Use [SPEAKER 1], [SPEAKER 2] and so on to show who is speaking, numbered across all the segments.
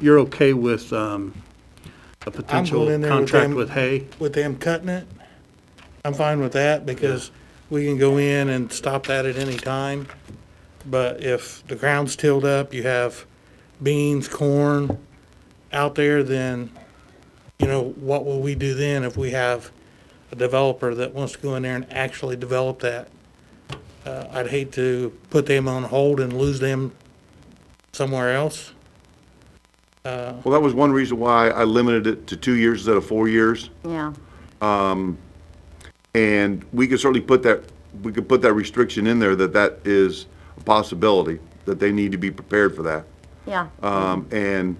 [SPEAKER 1] you're okay with um, a potential
[SPEAKER 2] in there with
[SPEAKER 1] contract
[SPEAKER 2] them.
[SPEAKER 1] with hay?
[SPEAKER 2] with them cutting it, I'm fine with that because we can go in and stop that at any time. But if the ground's tilled up, you have beans, corn out there, then, you know, what will we do then if we have a developer that wants to go in there and actually develop that? Uh, I'd hate to put them on hold and lose them somewhere else.
[SPEAKER 3] Well, that was one reason why I limited it to two years instead of four years.
[SPEAKER 4] Yeah,
[SPEAKER 3] And we could certainly put that, we could put that restriction in there that that is a possibility, that they need to be prepared for that.
[SPEAKER 4] yeah.
[SPEAKER 1] Oh,
[SPEAKER 3] Um, and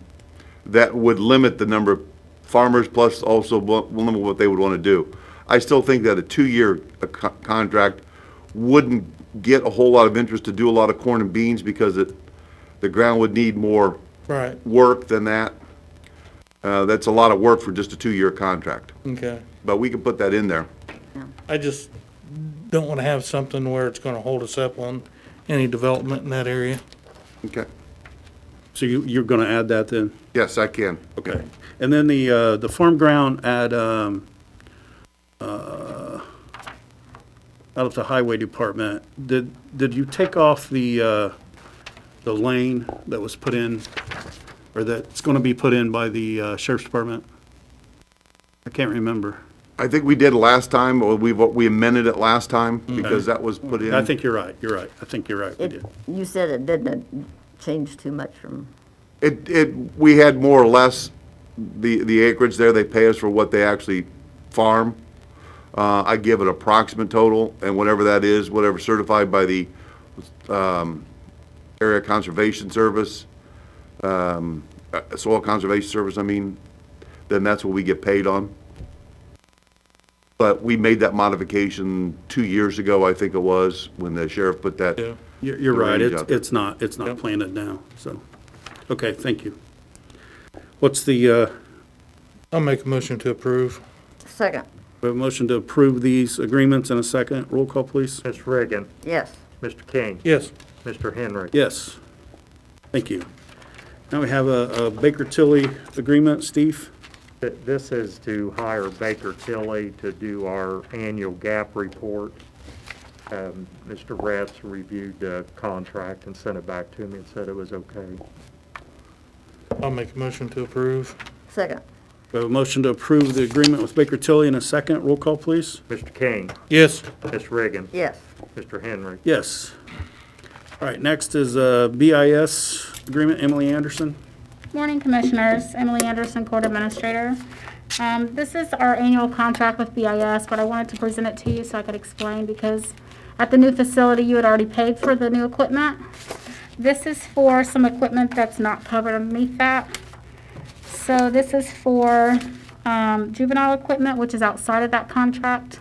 [SPEAKER 3] that would limit the number of farmers, plus also wa- will limit what they would want to do. I still think that a two-year uh, co- contract wouldn't get a whole lot of interest to do a lot of corn and beans because it, the ground would need more
[SPEAKER 2] Right,
[SPEAKER 3] work than that. Uh, that's a lot of work for just a two-year contract,
[SPEAKER 2] okay.
[SPEAKER 3] but we can put that in there.
[SPEAKER 2] I just don't want to have something where it's going to hold us up on any development in that area.
[SPEAKER 3] Okay.
[SPEAKER 1] So you, you're going to add that then?
[SPEAKER 3] Yes, I can.
[SPEAKER 1] Okay. And then the, uh, the farm ground at, um, uh, out at the highway department, did, did you take off the, uh, the lane that was put in, or that's going to be put in by the uh, sheriff's department? I can't remember.
[SPEAKER 3] I think we did last time, or we, we amended it last time because that was put in.
[SPEAKER 1] I think you're right, you're right. I think you're right, we
[SPEAKER 4] It,
[SPEAKER 1] did.
[SPEAKER 4] you said it didn't change too much from,
[SPEAKER 3] It, it, we had more or less the, the acreage there, they pay us for what they actually farm. Uh, I give an approximate total, and whatever that is, whatever certified by the, um, Area Conservation Service, um, uh, Soil Conservation Service, I mean, then that's what we get paid on. But we made that modification two years ago, I think it was, when the sheriff put that.
[SPEAKER 2] Yeah.
[SPEAKER 1] You're, you're right,
[SPEAKER 3] range
[SPEAKER 1] it's,
[SPEAKER 3] out there.
[SPEAKER 1] it's not, it's not
[SPEAKER 2] Yep.
[SPEAKER 1] planted now, so, okay, thank you. What's the, uh,
[SPEAKER 2] I'll make a motion to approve.
[SPEAKER 4] second,
[SPEAKER 1] we have a motion to approve these agreements in a second, roll call, please?
[SPEAKER 5] Ms. Reagan,
[SPEAKER 4] yes.
[SPEAKER 5] Mr. King,
[SPEAKER 2] Yes,
[SPEAKER 5] Mr. Henry.
[SPEAKER 1] Yes, thank you. Now we have a a Baker Tilly agreement, Steve?
[SPEAKER 5] Th- This is to hire Baker Tilly to do our annual gap report. Um, Mr. Ratz reviewed the contract and sent it back to me and said it was okay.
[SPEAKER 2] I'll make a motion to approve.
[SPEAKER 4] Second,
[SPEAKER 1] We have a motion to approve the agreement with Baker Tilly in a second, roll call, please?
[SPEAKER 5] Mr. King,
[SPEAKER 2] Yes,
[SPEAKER 5] Ms. Reagan,
[SPEAKER 4] yes.
[SPEAKER 5] Mr. Henry.
[SPEAKER 1] Yes. All right, next is uh, a BIS agreement, Emily Anderson.
[SPEAKER 6] Morning, Commissioners. Emily Anderson, Court Administrator. Um, This is our annual contract with BIS, but I wanted to present it to you so I could explain because at the new facility, you had already paid for the new equipment. This is for some equipment that's not covered underneath that. So this is for um, juvenile equipment, which is outside of that contract.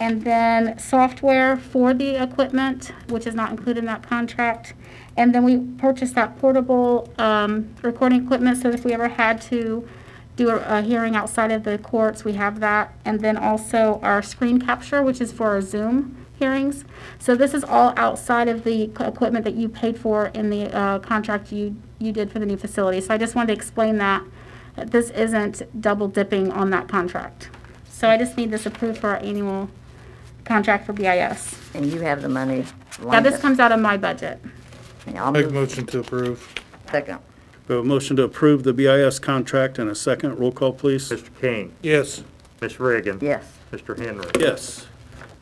[SPEAKER 6] And then software for the equipment, which is not included in that contract. And then we purchased that portable um, recording equipment so that if we ever had to do a a hearing outside of the courts, we have that. And then also our screen capture, which is for our Zoom hearings. So this is all outside of the c- equipment that you paid for in the uh, contract you, you did for the new facility. So I just wanted to explain that, that this isn't double dipping on that contract. So I just need this approved for our annual contract for BIS.
[SPEAKER 4] And you have the money.
[SPEAKER 6] Now, this comes out of my budget.
[SPEAKER 4] Yeah, I'll
[SPEAKER 2] make a
[SPEAKER 4] move
[SPEAKER 2] motion to approve.
[SPEAKER 4] second,
[SPEAKER 1] We have a motion to approve the BIS contract in a second, roll call, please?
[SPEAKER 5] Mr. King,
[SPEAKER 2] Yes,
[SPEAKER 5] Ms. Reagan.
[SPEAKER 4] yes.
[SPEAKER 5] Mr. Henry.
[SPEAKER 1] Yes.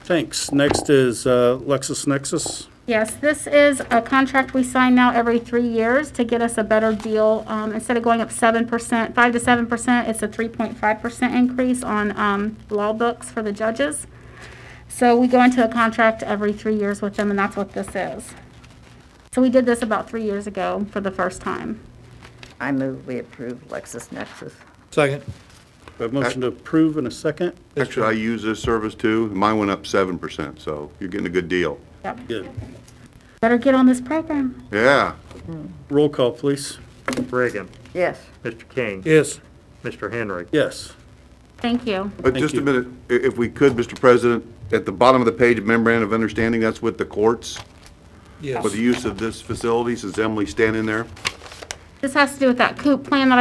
[SPEAKER 1] Thanks. Next is uh, LexisNexis.
[SPEAKER 6] Yes, this is a contract we sign now every three years to get us a better deal. Um, Instead of going up 7%, 5 to 7%, it's a 3.5% increase on um, law books for the judges. So we go into a contract every three years with them, and that's what this is. So we did this about three years ago for the first time.
[SPEAKER 4] I move we approve LexisNexis.
[SPEAKER 2] second.
[SPEAKER 1] We have a motion to approve in a second.
[SPEAKER 3] Actually, I use this service too. Mine went up seven percent, so you're getting a good deal.
[SPEAKER 6] Yep.
[SPEAKER 1] Good.
[SPEAKER 6] Better get on this program.
[SPEAKER 3] Yeah.
[SPEAKER 1] Roll call, please.
[SPEAKER 5] Ms. Reagan,
[SPEAKER 4] Yes,
[SPEAKER 5] Mr. King,
[SPEAKER 2] Yes,
[SPEAKER 5] Mr. Henry.
[SPEAKER 1] Yes.
[SPEAKER 6] Thank you.
[SPEAKER 3] But just
[SPEAKER 1] you.
[SPEAKER 3] a minute, i- if we could, Mr. President, at the bottom of the page, memorandum of understanding, that's with the courts
[SPEAKER 2] yes.
[SPEAKER 3] for the use of this facility, since Emily's standing there.
[SPEAKER 6] This has to do with that COOP plan that I